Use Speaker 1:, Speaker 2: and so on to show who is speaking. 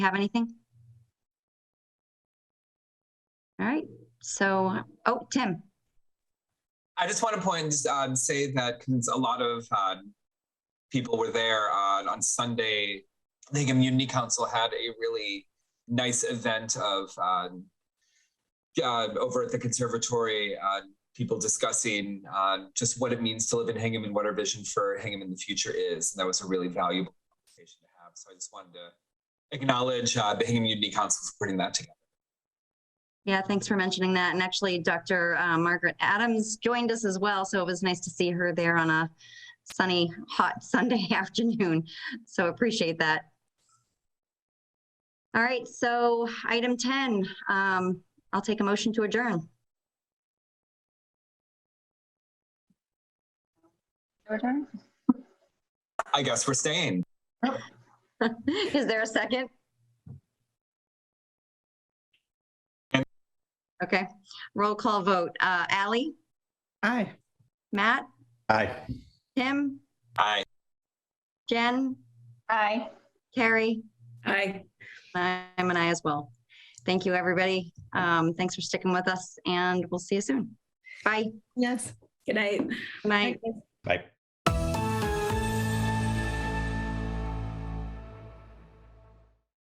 Speaker 1: have anything? All right, so, oh, Tim,
Speaker 2: I just want to point um, say that because a lot of uh, people were there uh, on Sunday. I think Immunity Council had a really nice event of uh, uh, over at the conservatory. Uh, people discussing uh, just what it means to live in Hingham and what our vision for Hingham in the future is. And that was a really valuable conversation to have. So I just wanted to acknowledge uh, the Hingham Unity Council for putting that together.
Speaker 1: yeah, thanks for mentioning that. And actually, Dr. uh, Margaret Adams joined us as well, so it was nice to see her there on a sunny, hot Sunday afternoon. So appreciate that. All right, so item 10, um, I'll take a motion to adjourn.
Speaker 3: Your turn?
Speaker 2: I guess we're staying.
Speaker 1: Is there a second?
Speaker 2: And-
Speaker 1: Okay, roll call vote. Uh, Ally,
Speaker 3: Aye.
Speaker 1: Matt,
Speaker 4: Aye.
Speaker 1: Tim,
Speaker 2: Aye.
Speaker 1: Jen,
Speaker 3: Aye.
Speaker 1: Carrie,
Speaker 5: Aye.
Speaker 1: I'm an I as well. Thank you, everybody. Um, thanks for sticking with us and we'll see you soon. Bye.
Speaker 5: Yes. Good night.
Speaker 1: Good Night.
Speaker 4: Bye.